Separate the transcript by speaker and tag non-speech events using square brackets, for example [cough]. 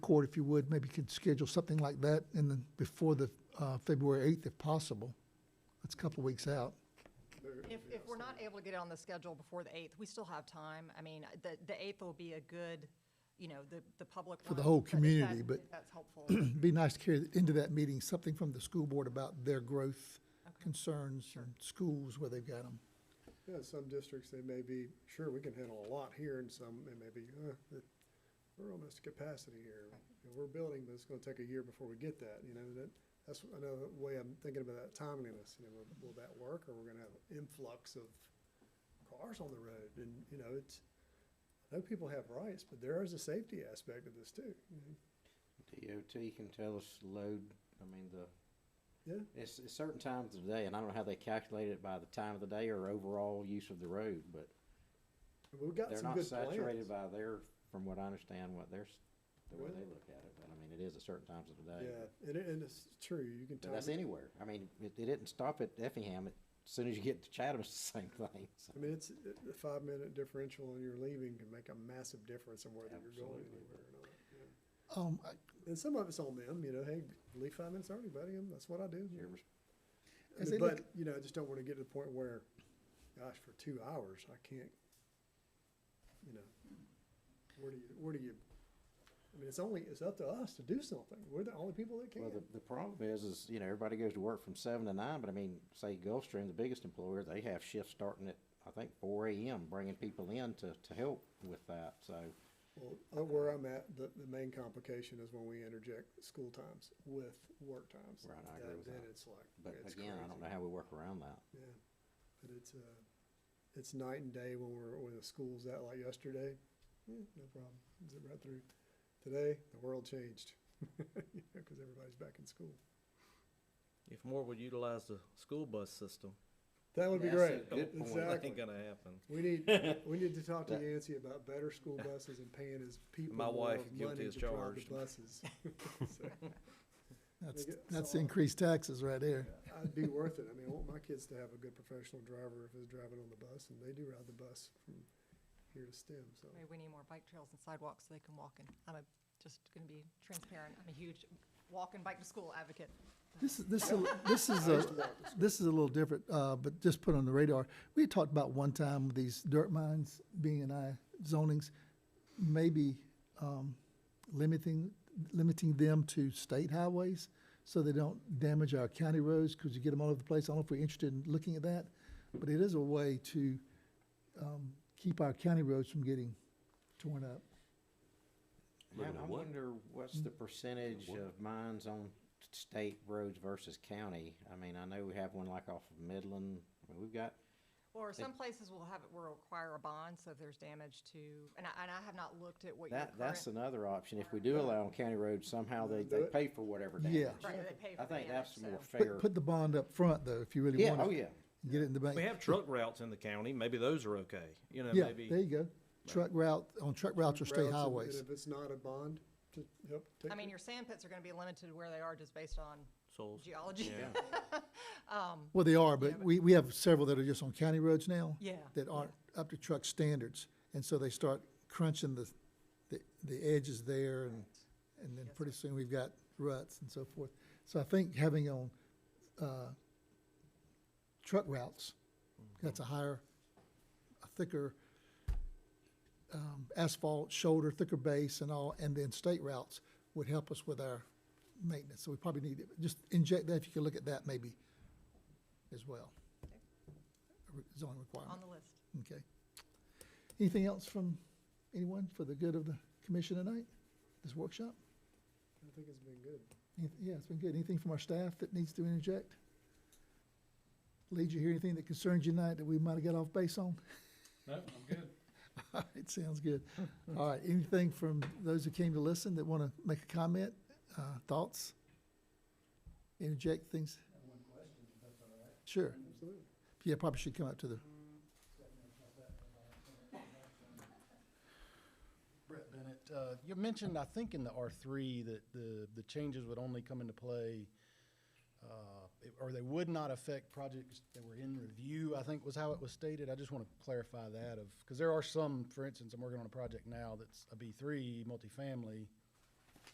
Speaker 1: court, if you would, maybe could schedule something like that in the, before the, uh, February eighth, if possible. That's a couple of weeks out. [clears throat]
Speaker 2: If, if we're not able to get it on the schedule before the 8th, we still have time. I mean, the, the 8th will be a good, you know, the, the public.
Speaker 1: For the
Speaker 2: one,
Speaker 1: whole
Speaker 2: but if
Speaker 1: community,
Speaker 2: that-
Speaker 1: but-
Speaker 2: if That's
Speaker 1: [clears throat]
Speaker 2: helpful.
Speaker 1: It'd Be nice to carry into that meeting something from the school board about their growth concerns and schools where they've got them.
Speaker 3: Yeah, some districts, they may be, sure, we can handle a lot here, and some, they may be, uh, that- we're almost at capacity here. You know, We're building, but it's gonna take a year before we get that, you know, that, that's another way I'm thinking about that timeliness, you know, will- will that work, or we're gonna have influx of cars on the road, and, you know, it's, I know people have rights, but there is a safety aspect of this too, you know.
Speaker 4: DOT can tell us to load, I mean, the.
Speaker 3: Yeah.
Speaker 4: It's, it's certain times of the day, and I don't know how they calculate it by the time of the day or overall use of the road, but
Speaker 3: And We've got
Speaker 4: they're
Speaker 3: some
Speaker 4: not
Speaker 3: good plans.
Speaker 4: saturated by their, from what I understand, what they're, s- the way they
Speaker 3: Really?
Speaker 4: look at it, but I mean, it is at certain times of the day.
Speaker 3: Yeah, and, it- and it's true, you can
Speaker 4: But
Speaker 3: time,
Speaker 4: that's
Speaker 3: it.
Speaker 4: anywhere, I mean, it, it didn't stop at Effingham, it- as soon as you get to Chatham, it's the same thing, so.
Speaker 3: I mean, it's, it- a five-minute differential on your leaving can make a massive difference in whether you're going
Speaker 4: Absolutely.
Speaker 3: anywhere or not. yeah.
Speaker 1: Um, I-
Speaker 3: And some of it's on them, you know, hey, leave five minutes early, buddy, and that's what I do.
Speaker 4: you're res-
Speaker 3: I
Speaker 1: As
Speaker 3: mean,
Speaker 1: they look-
Speaker 3: But, you know, I just don't wanna get to the point where, gosh, for two hours, I can't, you know, where do you, where do you, I mean, it's only, it's up to us to do something. We're the only people that can.
Speaker 4: Well, the, the problem is, is, you know, everybody goes to work from seven to nine, but I mean, say Gulfstream, the biggest employer, they have shifts starting at, I think, four AM, bringing people in to, to help with that, so.
Speaker 3: Well, uh, where I'm at, the, the main complication is when we interject school times with work times.
Speaker 4: Right, I agree
Speaker 3: Then-
Speaker 4: with
Speaker 3: Then
Speaker 4: that.
Speaker 3: it's like,
Speaker 4: But
Speaker 3: it's
Speaker 4: again, I don't
Speaker 3: crazy.
Speaker 4: know how we work around that.
Speaker 3: Yeah, but it's, uh, it's night and day when we're, when the school's out like yesterday, yeah, no problem, zip right through. Today, the world changed, [laughs] you know, cause everybody's back in school.
Speaker 5: If more would utilize the school bus system,
Speaker 3: That would be
Speaker 4: That's a
Speaker 3: great,
Speaker 4: good point.
Speaker 5: that ain't
Speaker 3: exactly.
Speaker 5: gonna happen.
Speaker 3: We need, we need to
Speaker 5: [laughs]
Speaker 3: talk to Yancey about better school buses and paying his people
Speaker 5: My
Speaker 3: more
Speaker 5: wife is guilty
Speaker 3: money
Speaker 5: as
Speaker 3: to drive the
Speaker 5: charged. [laughs]
Speaker 3: buses. [laughs] So,
Speaker 1: That's,
Speaker 3: get
Speaker 1: that's
Speaker 3: some- uh,
Speaker 1: increased taxes right there.
Speaker 3: I'd be worth it, I mean, I want my kids to have a good professional driver if he's driving on the bus, and they do ride the bus from here to STEM, so.
Speaker 2: Maybe we need more bike trails and sidewalks so they can walk in. I'm a, just gonna be transparent. I'm a huge walk and bike to school advocate.
Speaker 1: This is, this is, this is
Speaker 3: [laughs]
Speaker 1: a, this is a little different, uh, but just put on the radar. We had talked about one time these dirt mines being in I zonings, maybe, um, limiting, limiting them to state highways so they don't damage our county roads, cause you get them all over the place. I don't know if we're interested in looking at that, but it is a way to, um, keep our county roads from getting torn up.
Speaker 4: I
Speaker 6: Looking at
Speaker 4: I
Speaker 6: what?
Speaker 4: wonder what's the percentage
Speaker 6: what?
Speaker 4: of mines on state roads versus county? I mean, I know we have one like off of Midland, I mean, we've got,
Speaker 2: Or some places will have, it will require a bond, so if there's damage to, and I, and I have not looked at what your
Speaker 4: that,
Speaker 2: current.
Speaker 4: that's another option. If we do allow on county roads, somehow they, they
Speaker 3: Do it.
Speaker 4: pay for whatever
Speaker 1: Yeah.
Speaker 4: damage.
Speaker 2: Right, they pay
Speaker 4: I
Speaker 2: for
Speaker 4: think
Speaker 2: damage,
Speaker 4: that's more
Speaker 2: so.
Speaker 4: fair.
Speaker 1: Put, put the bond up front though, if you really
Speaker 4: Yeah,
Speaker 1: want
Speaker 4: oh,
Speaker 1: to.
Speaker 4: yeah.
Speaker 1: Get it in the bank.
Speaker 5: We have truck routes in the county, maybe those are okay, you know,
Speaker 1: Yeah,
Speaker 5: maybe.
Speaker 1: there you go. Truck route, on truck routes or state
Speaker 3: routes, and-
Speaker 1: highways.
Speaker 3: And if it's not a bond to help take.
Speaker 2: I mean,
Speaker 3: it.
Speaker 2: your sand pits are gonna be limited to where they are just based on
Speaker 5: Souls.
Speaker 2: geology.
Speaker 5: Yeah.
Speaker 1: Well, they are, but we, we have several that are just on county roads now.
Speaker 2: [laughs] Yeah,
Speaker 1: That aren't up to truck standards, and so they start crunching the, the, the edges there, and, and then
Speaker 2: Yes,
Speaker 1: pretty soon we've got ruts and so forth. So I think having on, uh, truck routes,
Speaker 2: Mm-hmm.
Speaker 1: that's a higher, a thicker, um, asphalt shoulder, thicker base and all, and then state routes would help us with our maintenance. So we probably need, to just inject that, if you could look at that maybe as well. A re- Zoning
Speaker 2: on
Speaker 1: requirement,
Speaker 2: the list.
Speaker 1: okay. Anything else from anyone for the good of the commission tonight, this workshop?
Speaker 3: I think it's been good.
Speaker 1: Anyth- Yeah, it's been good. Anything from our staff that needs to interject? Lee, did you hear anything that concerns you tonight that we might have got off
Speaker 7: [laughs]
Speaker 1: base on?
Speaker 7: No, I'm
Speaker 1: [laughs]
Speaker 7: good.
Speaker 1: It sounds good. All right, anything from those who came to listen that want to make a comment, uh, thoughts? Interject things? Sure.
Speaker 3: Absolutely.
Speaker 1: Yeah, probably should come up to the,
Speaker 8: Brett Bennett, uh, you mentioned, I think in the R three, that the, the changes would only come into play, uh, it- or they would not affect projects that were in review, I think was how it was stated. I just want to clarify that of, because there are some, for instance, I'm working on a project now that's a B three multifamily